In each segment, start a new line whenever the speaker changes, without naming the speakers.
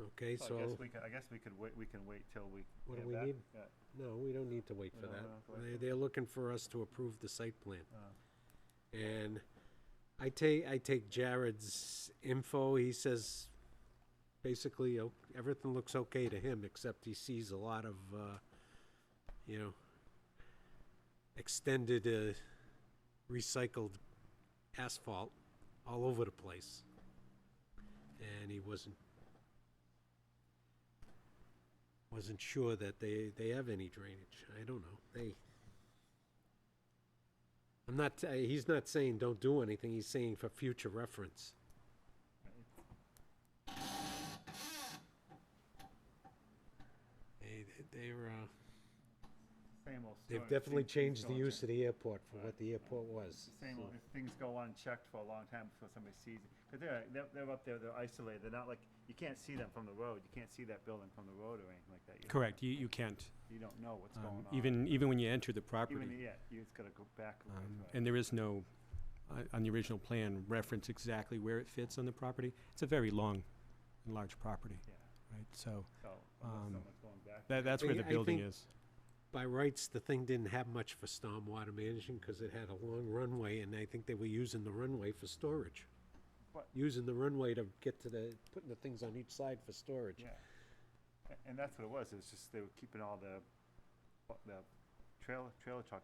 Okay,
Well, I guess
so,
we can, I guess we could wait, we can wait till we.
What do
have
we
that-
need?
yeah,
no, we don't need to wait for
No,
that.
no, no,
They,
wait.
they're looking for us to approve the site plan.
uh,
And I take, I take Jared's info, he says, basically, o- everything looks okay to him, except he sees a lot of, uh, you know, extended, uh, recycled asphalt all over the place. And he wasn't, wasn't sure that they, they have any drainage, I don't know, they, I'm not, uh, he's not saying don't do anything, he's saying for future reference. They, they're, uh,
Same old story.
they've definitely
Things- things
changed the
go
use of
unchecked.
the airport for what the airport was.
Same,
so.
old- if things go unchecked for a long time before somebody sees it, because they're, they're, they're up there, they're isolated, they're not like, you can't see them from the road, you can't see that building from the road or anything like that. You don't
Correct,
know.
you, you can't,
You don't know what's
um,
going on.
even, even when you enter the
Even,
property.
yeah, you just gotta go back. a ways,
um,
right.
And there is no, uh, on the original plan, reference exactly where it fits on the property. It's a very long and large property,
Yeah,
right? So
so,
um,
unless someone's going back.
that, that's where
I-
the
I
building
think-
is.
By rights, the thing didn't have much for stormwater management because it had a long runway and I think they were using the runway for storage.
What?
Using the runway to get to the, putting the things on each side for storage.
Yeah. A- And that's what it was, it was just, they were keeping all the, all the trailer, trailer truck.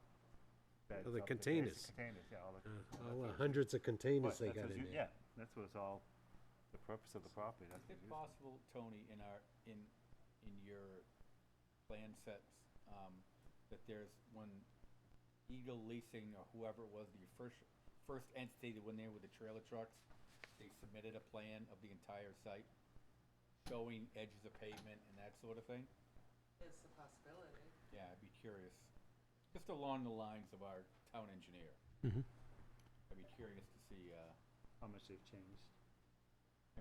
beds
Oh, the
up there, basic
containers.
Containers, yeah, all the.
Uh,
all that
all the
stuff.
hundreds of
Right,
containers they
that's
got
what's
in
u-
there.
Yeah, that's what's all, the purpose of the property, that's what it
If
is.
possible, Tony, in our, in, in your plan sets, um, that there's when Eagle Leasing or whoever it was, the first, first entity that went there with the trailer trucks, they submitted a plan of the entire site, showing edges of pavement and that sort of thing.
It's a possibility.
Yeah, I'd be curious, just along the lines of our town engineer.
Mhm.
I'd be curious to see, uh,
How much they've changed.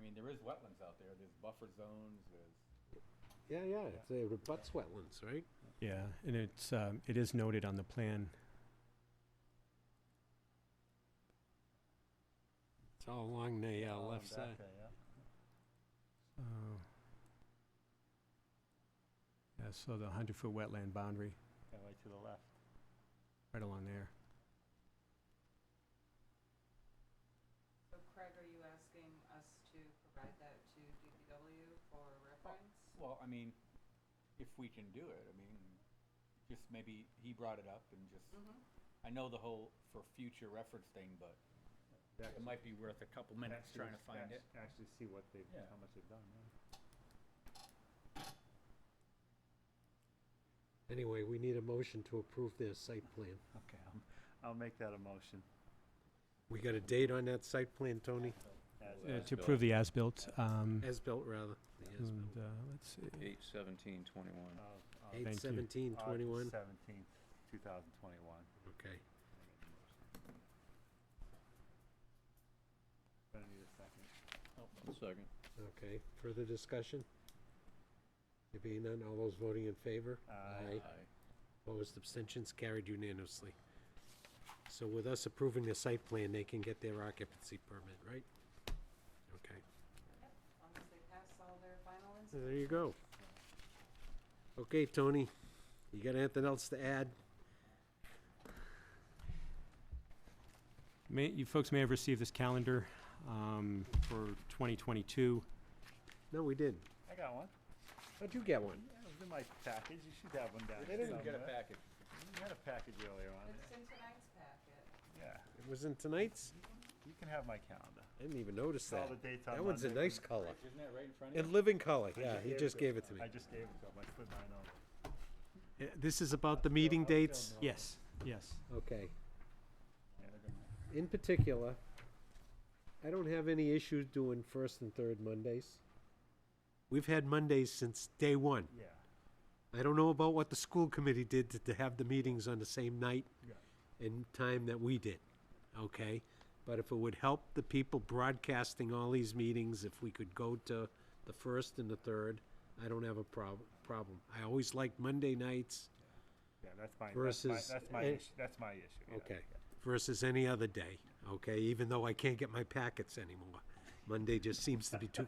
I mean, there is wetlands out there, there's buffer zones, there's.
Yeah, yeah, it's, it abuts wetlands, right?
Yeah, and it's, um, it is noted on the plan.
It's all along the uh,
All on
left
back
side.
there, yeah.
uh, Yeah, so the 100-foot wetland boundary,
Yeah, right to the left.
right along there.
So Craig, are you asking us to provide that to DPW for reference?
Well, I mean, if we can do it, I mean, just maybe he brought it up and just,
Mhm.
I know the whole for future reference thing, but it
Actually-
might be worth a couple minutes
actually
trying to
s-
find
act-
it.
Actually see what they've,
Yeah.
how much they've done, yeah.
Anyway, we need a motion to approve their site plan.
Okay, I'll, I'll make that a motion.
We got a date on that site plan, Tony?
as
Uh,
is.
To approve the as-built, um,
As-built, rather.
and, uh, let's see,
Eight seventeen twenty-one.
Of, uh,
Eight
Thank you.
seventeen
August
twenty-one,
Seventeenth, two thousand twenty-one.
okay.
Gonna need a second.
Oh,
Second.
Okay, further discussion? There being none, all those voting in favor?
Aye.
Opposed, abstentions carried unanimously. So with us approving the site plan, they can get their occupancy permit, right? Okay,
Yep, as long as they pass all their final
so
inspections.
there you go. Okay, Tony, you got anything else to add?
May, you folks may have received this calendar um, for 2022.
No, we didn't.
I got one.
How'd you get one?
Yeah, it was in my package. You should have one down.
They didn't
get
package.
You had a package earlier on.
It's in tonight's packet.
Yeah,
It was in tonight's?
you can have my calendar.
I didn't even notice
All
that.
the dates on
That one's a
Monday.
nice color.
Isn't that right in front of
In
you?
living color, yeah, he
gave
just gave it to me.
I just gave it to him. I slid mine over.
This is about the
meeting dates?
Yes, yes.
Okay.
Yeah.
In particular, I don't have any issues doing first and third Mondays. We've had Mondays since day one.
Yeah.
I don't know about what the school committee did to, to have the meetings on the same night
Yeah.
and time that we did, okay? But if it would help the people broadcasting all these meetings, if we could go to the first and the third, I don't have a prob- problem. I always liked Monday nights
Yeah, that's my, that's my,
Versus
that's my
a-
issue. That's my issue. yeah,
Okay.
yeah.
versus any other day, okay? Even though I can't get my packets anymore. Monday just seems to be too